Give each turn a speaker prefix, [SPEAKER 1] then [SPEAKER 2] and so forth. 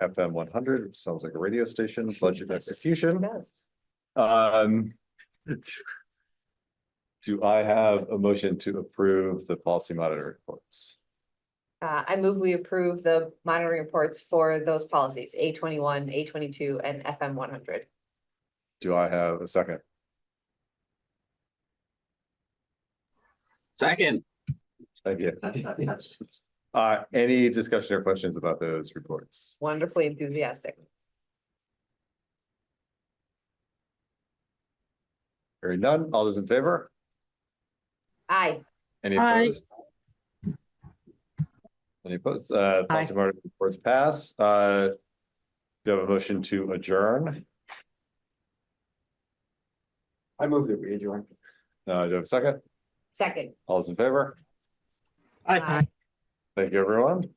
[SPEAKER 1] FM one hundred, which sounds like a radio station, budget execution.
[SPEAKER 2] does.
[SPEAKER 1] Um. Do I have a motion to approve the policy monitor reports?
[SPEAKER 2] Uh, I move we approve the monitoring reports for those policies, A twenty-one, A twenty-two, and FM one hundred.
[SPEAKER 1] Do I have a second?
[SPEAKER 3] Second,
[SPEAKER 1] Thank you. Uh, any discussion or questions about those reports?
[SPEAKER 2] Wonderfully enthusiastic.
[SPEAKER 1] Hearing none, all those in favor?
[SPEAKER 2] Aye,
[SPEAKER 1] Any
[SPEAKER 4] Aye.
[SPEAKER 1] opposed? Any opposed? Uh,
[SPEAKER 4] Aye.
[SPEAKER 1] policy minority reports pass. Uh, do you have a motion to adjourn?
[SPEAKER 5] I move that we adjourn.
[SPEAKER 1] Uh, do you have a second?
[SPEAKER 2] second.
[SPEAKER 1] All those in favor?
[SPEAKER 3] Aye.
[SPEAKER 2] Aye.
[SPEAKER 1] Thank you, everyone.